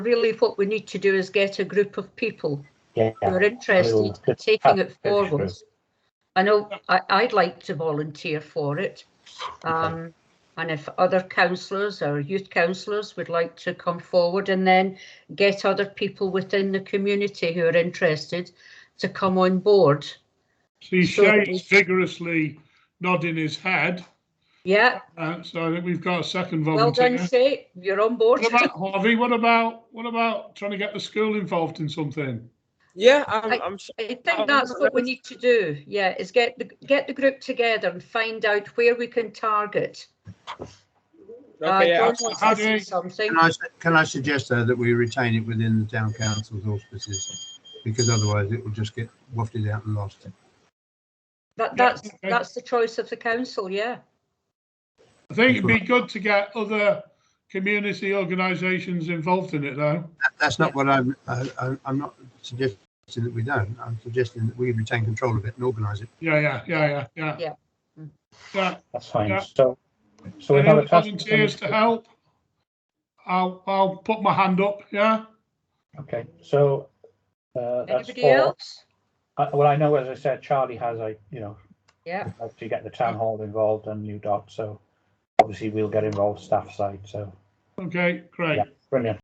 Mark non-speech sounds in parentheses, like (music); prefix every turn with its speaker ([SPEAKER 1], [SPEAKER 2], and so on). [SPEAKER 1] really what we need to do is get a group of people
[SPEAKER 2] Yeah.
[SPEAKER 1] who are interested in
[SPEAKER 2] get
[SPEAKER 1] taking it
[SPEAKER 2] that going
[SPEAKER 1] forward. I know I, I'd like to volunteer for it. Um, and if other councillors or youth councillors would like to come forward and then get other people within the community who are interested to come on board.
[SPEAKER 3] See,
[SPEAKER 1] Sure.
[SPEAKER 3] Shane's vigorously nodding his head,
[SPEAKER 1] Yeah,
[SPEAKER 3] uh, so I think we've got a second
[SPEAKER 1] well
[SPEAKER 3] volunteer.
[SPEAKER 1] done, Shay. You're on board.
[SPEAKER 3] What about Harvey? What about, what about trying to get the school involved in something?
[SPEAKER 4] Yeah,
[SPEAKER 1] I-
[SPEAKER 4] I'm, I'm sure.
[SPEAKER 1] (laughs) I think that's what we need to do. Yeah, is get the get the group together and find out where we can target.
[SPEAKER 4] Okay,
[SPEAKER 1] uh,
[SPEAKER 4] yeah,
[SPEAKER 1] John
[SPEAKER 4] I'll-
[SPEAKER 1] wants
[SPEAKER 3] How
[SPEAKER 1] to
[SPEAKER 3] do
[SPEAKER 1] say
[SPEAKER 3] we-
[SPEAKER 1] something.
[SPEAKER 5] Can I, su- can I suggest though that we retain it within the town council's auspices? Because otherwise it will just get wafted out and lost.
[SPEAKER 1] That,
[SPEAKER 3] Yeah,
[SPEAKER 1] that's,
[SPEAKER 3] okay.
[SPEAKER 1] that's the choice of the council, yeah.
[SPEAKER 3] I think it'd be good to get other community organisations involved in it though.
[SPEAKER 5] That- That's not what I'm, I, I- I'm not suggesting that we don't. I'm suggesting that we retain control of it and organise it.
[SPEAKER 3] Yeah, yeah, yeah, yeah, yeah.
[SPEAKER 1] Yeah.
[SPEAKER 3] Yeah,
[SPEAKER 2] That's fine.
[SPEAKER 3] Yeah.
[SPEAKER 2] So, so we
[SPEAKER 3] any
[SPEAKER 2] have a
[SPEAKER 3] other
[SPEAKER 2] task.
[SPEAKER 3] volunteers to help? I'll, I'll put my hand up, yeah?
[SPEAKER 2] Okay, so uh, that's
[SPEAKER 1] Anybody
[SPEAKER 2] four.
[SPEAKER 1] else?
[SPEAKER 2] Uh, well, I know, as I said, Charlie has a you know
[SPEAKER 1] Yeah,
[SPEAKER 2] to get the town hall involved and New Dot. So obviously we'll get involved staff side. So
[SPEAKER 3] Okay, great.
[SPEAKER 2] yeah, brilliant.